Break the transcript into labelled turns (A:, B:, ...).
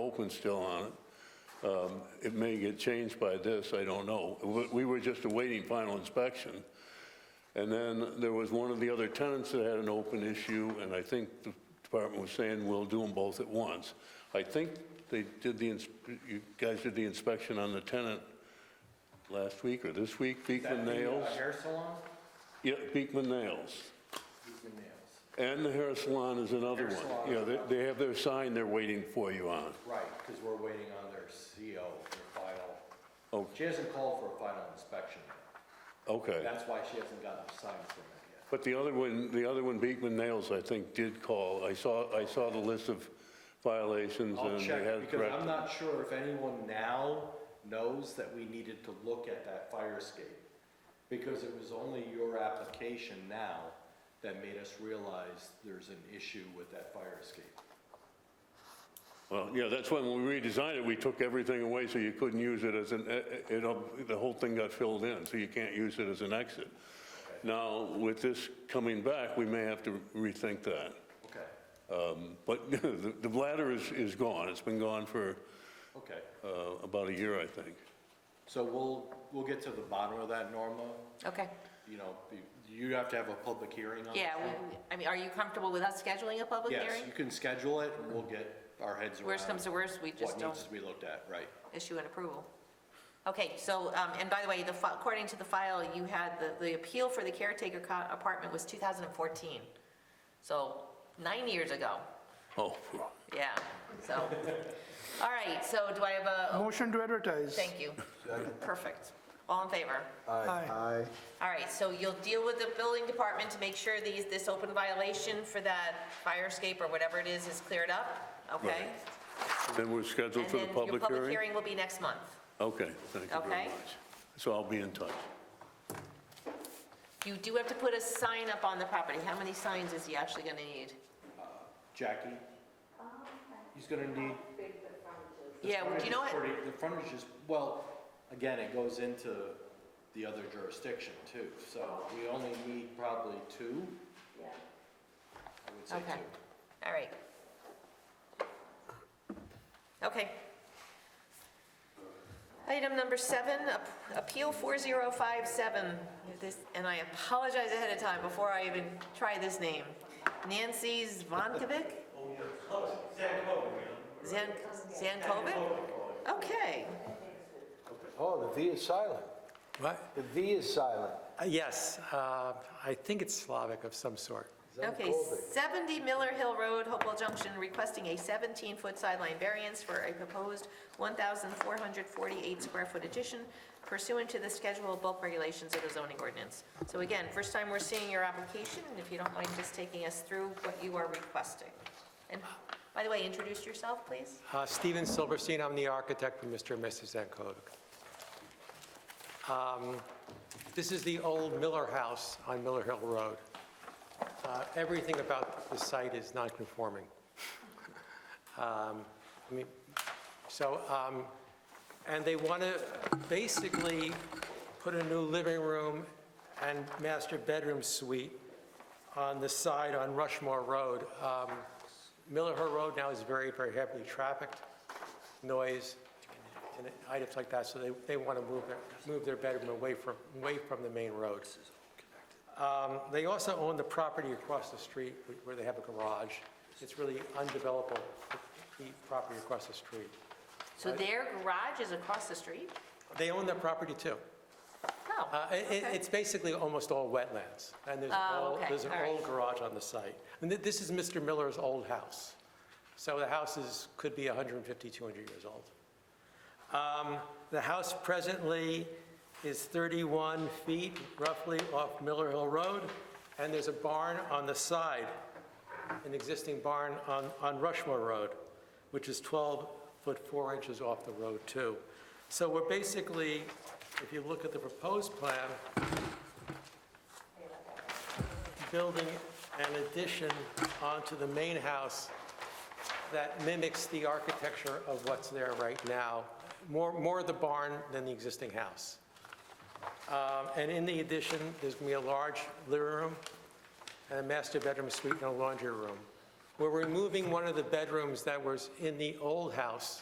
A: Oakland's still on it. Um, It may get changed by this, I don't know. We- We were just awaiting final inspection. And then there was one of the other tenants that had an open issue, and I think the department was saying, we'll do them both at once. I think they did the, ins- you guys did the inspection on the tenant last week or this week, Beekman Nails?
B: Hair salon?
A: Yeah, Beekman Nails.
B: Beekman Nails.
A: And the hair salon is another
B: Hair salon.
A: one. Yeah, they, they have their sign they're waiting for you on.
B: Right, because we're waiting on their CO, their final.
A: Oh.
B: She hasn't called for a final inspection.
A: Okay.
B: That's why she hasn't gotten the sign permit yet.
A: But the other one, the other one, Beekman Nails, I think, did call. I saw, I saw the list of violations
B: I'll
A: and they had
B: check,
A: it
B: because I'm
A: corrected.
B: not sure if anyone now knows that we needed to look at that fire escape. Because it was only your application now that made us realize there's an issue with that fire escape.
A: Well, yeah, that's when we redesigned it, we took everything away so you couldn't use it as an, e, it, it- the whole thing got filled in, so you can't use it as an exit. Now, with this coming back, we may have to rethink that.
B: Okay,
A: Um, But the the bladder is, is gone. It's been gone for
B: okay.
A: uh, about a year, I think.
B: So we'll, we'll get to the bottom of that, Norma.
C: Okay,
B: You know, you- you have to have a public hearing on it.
C: yeah, we- I mean, are you comfortable with us scheduling a public
B: Yes,
C: hearing?
B: you can schedule it, and we'll get our heads around.
C: Worst comes to worst, we just
B: What
C: don't
B: needs to be looked at, right.
C: issue an approval. Okay, so, um, and by the way, the, fi- according to the file, you had, the, the appeal for the caretaker co- apartment was 2014. So nine years ago,
A: Oh,
C: yeah, so. All right, so do I have a, oh,
D: Motion to advertise.
C: thank you. Perfect. All in favor?
D: Aye.
C: All right, so you'll deal with the building department to make sure these, this open violation for that fire escape or whatever it is is cleared up, okay?
A: Right. then we're scheduled
C: And
A: for
C: then
A: the
C: your
A: public
C: public
A: hearing?
C: hearing will be next month.
A: Okay, thank you very
C: Okay.
A: much. So I'll be in touch.
C: You do have to put a sign up on the property. How many signs is he actually gonna need?
B: Jackie? He's gonna need.
C: Yeah, well, do you know what?
B: Frontage is pretty- The frontage is, well, again, it goes into the other jurisdiction too, so we only need probably two. I would say
C: Okay,
B: two.
C: all right. Okay. Item number seven, Ap- Appeal 4057. This, and I apologize ahead of time before I even try this name. Nancy Zvankovic? Zan Zankovic? Okay.
E: Oh, the V is silent.
F: What?
E: The V is silent.
F: Uh, Yes, uh, I think it's Slavic of some sort.
C: Okay,
E: Zankovic.
C: 70 Miller Hill Road, Hopewell Junction, requesting a 17-foot sideline variance for a proposed 1,448-square-foot addition pursuant to the schedule of bulk regulations of the zoning ordinance. So again, first time we're seeing your application, and if you don't mind just taking us through what you are requesting. And by the way, introduce yourself, please.
F: Uh, Steven Silverstein, I'm the architect for Mr. and Mrs. Zankovic. Um, This is the old Miller House on Miller Hill Road. Uh, Everything about the site is non-conforming. Um, I mean, So, um, and they want to basically put a new living room and master bedroom suite on the side on Rushmore Road. Um, Miller Hill Road now is very, very heavily trafficked, noise, and items like that, so they, they want to move their, move their bedroom away from, away from the main road. Um, They also own the property across the street wh- where they have a garage. It's really undevelopable, the property across the street.
C: So their garage is across the street?
F: They own that property too.
C: Oh,
F: Uh, it- it- It's basically almost all wetlands, and there's an
C: Oh,
F: old,
C: okay,
F: there's an
C: all right.
F: old garage on the site. And thi- this is Mr. Miller's old house, so the house is, could be 150, 200 years old. Um, The house presently is 31 feet roughly off Miller Hill Road, and there's a barn on the side, an existing barn on, on Rushmore Road, which is 12 foot 4 inches off the road too. So we're basically, if you look at the proposed plan, building an addition onto the main house that mimics the architecture of what's there right now, more, more the barn than the existing house. Um, And in the addition, there's going to be a large living room and a master bedroom suite and a laundry room. We're removing one of the bedrooms that was in the old house